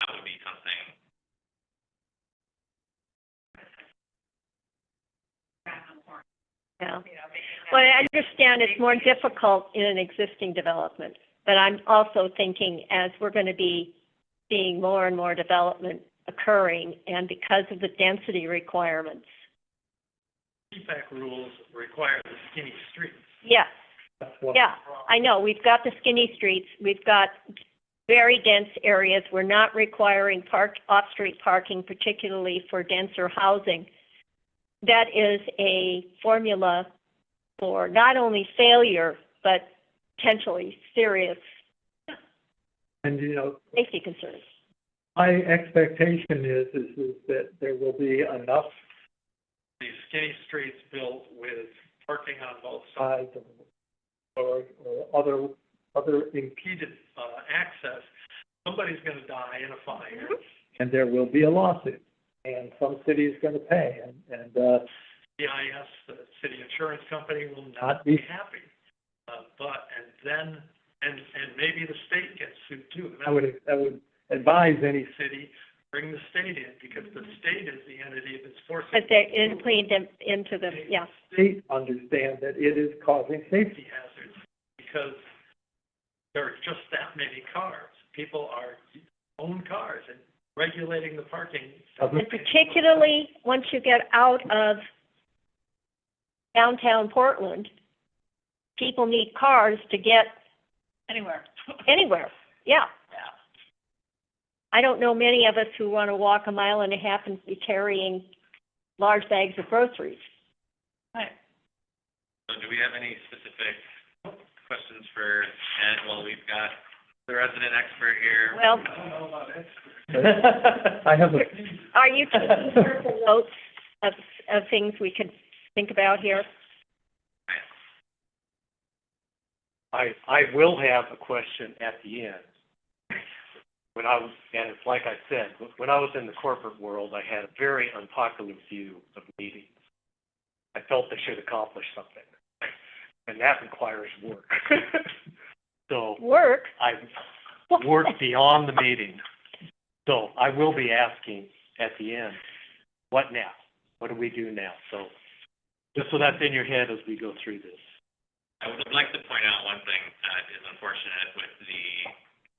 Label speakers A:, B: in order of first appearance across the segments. A: that would be something.
B: Yeah. Well, I understand it's more difficult in an existing development, but I'm also thinking as we're going to be seeing more and more development occurring and because of the density requirements.
C: CPAC rules require the skinny streets.
B: Yes,
C: That's one
B: yeah, I know, we've got the skinny streets, we've got very dense areas. We're not requiring park, off-street parking, particularly for denser housing. That is a formula for not only failure, but potentially serious
D: And, you know,
B: safety concerns.
D: my expectation is, is, is that there will be enough
C: These skinny streets built with parking on both sides
D: sides or, or other, other, in-
C: impeded, uh, access. Somebody's gonna die in a fire.
D: and there will be a lawsuit, and some city is gonna pay, and, and, uh,
C: CIS, the city insurance company, will not be happy. Uh, but, and then, and, and maybe the state gets sued too. And
D: I would, I would advise any,
C: the city, bring the state in, because the state is the entity that's forcing.
B: But they're including them into the, yeah.
D: state understand that it is causing safety.
C: safety hazards because there are just that many cars. People are own cars and regulating the parking.
D: Doesn't-
B: And particularly once you get out of downtown Portland, people need cars to get
A: Anywhere.
B: anywhere, yeah.
A: Yeah.
B: I don't know many of us who want to walk a mile and a half and be carrying large bags of groceries.
A: So do we have any specific questions for Ed while we've got the resident expert here?
B: Well,
C: I don't know about experts.
D: I have a,
B: are you taking careful notes of, of things we could think about here?
E: I, I will have a question at the end. When I was, and it's like I said, when I was in the corporate world, I had a very unpopular view of meetings. I felt they should accomplish something, and that requires work. So
B: Work?
E: I work beyond the meeting. So I will be asking at the end, what now? What do we do now? So, just so that's in your head as we go through this.
A: I would like to point out one thing that is unfortunate with the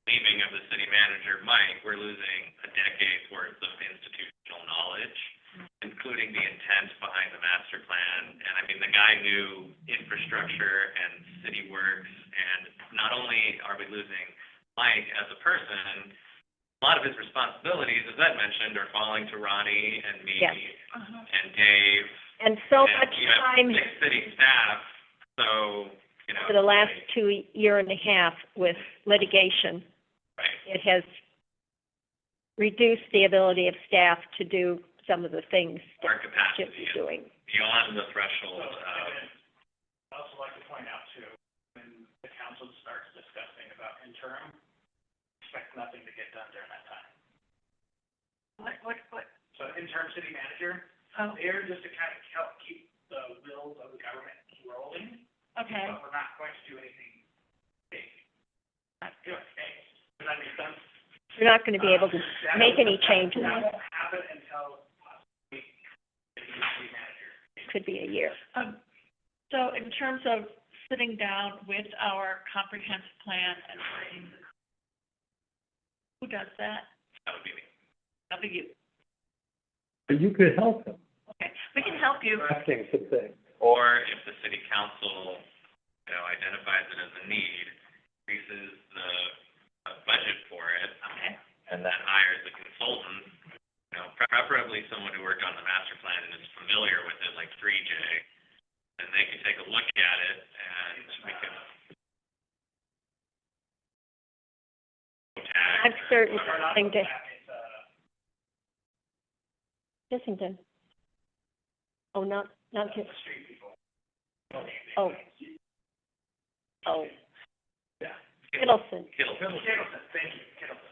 A: leaving of the city manager, Mike, we're losing a decade's worth of institutional knowledge, including the intent behind the master plan. And I mean, the guy knew infrastructure and city works, and not only are we losing Mike as a person, a lot of his responsibilities, as Ed mentioned, are falling to Ronnie and me
B: Yes.
A: and Dave
B: And so
A: and
B: much
A: we have
B: time
A: Six city staff, so, you know.
B: for the last
A: like,
B: two year and a half with litigation.
A: Right,
B: it has reduced the ability of staff to do some of the things that
A: our
B: Chip
A: capacity
B: is
A: is
B: doing.
A: beyond the threshold of,
C: I'd also like to point out too, when the council starts discussing about interim, expect nothing to get done during that time. What, what, what? Oh. So interim city manager, they're just to kind of help keep the wheels of the government rolling. Okay. But we're not going to do anything big. Not good. Does that make sense? Uh,
B: We're not going to be able to make any changes.
C: That won't happen until possibly the new city manager.
B: Could be a year.
F: Um, so in terms of sitting down with our comprehensive plan and writing, the- who does that?
A: that would be me.
F: That'll be you.
D: but you could help them,
F: Okay, we can help you.
D: drafting some things.
A: Or if the city council, you know, identifies it as a need, increases the uh, budget for it,
F: Okay.
A: and then hires a consultant, you know, preferably someone who worked on the master plan and is familiar with it, like three J, and they can take a look at it, and we can.
B: I'm certain something to, Kissington. Oh, not, not Kiss, oh. Oh. Kittleson.
A: Kittleson.
C: Kittleson, thank you, Kittleson.